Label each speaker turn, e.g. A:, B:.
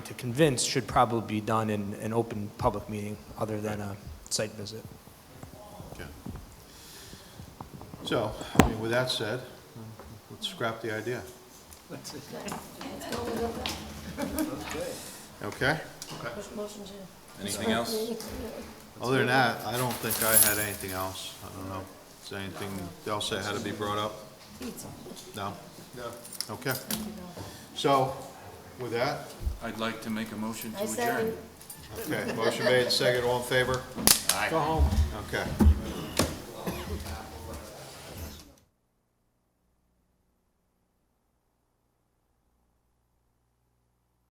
A: to convince should probably be done in an open public meeting other than a site visit.
B: Okay. So, I mean, with that said, let's scrap the idea. Okay?
C: Motion to.
D: Anything else?
B: Other than that, I don't think I had anything else. I don't know. Is there anything else that had to be brought up? No? No. Okay. So, with that,
D: I'd like to make a motion to
C: I
D: adjourn.
C: second.
B: okay, motion made, second, all in favor? Aye. Go home. Okay.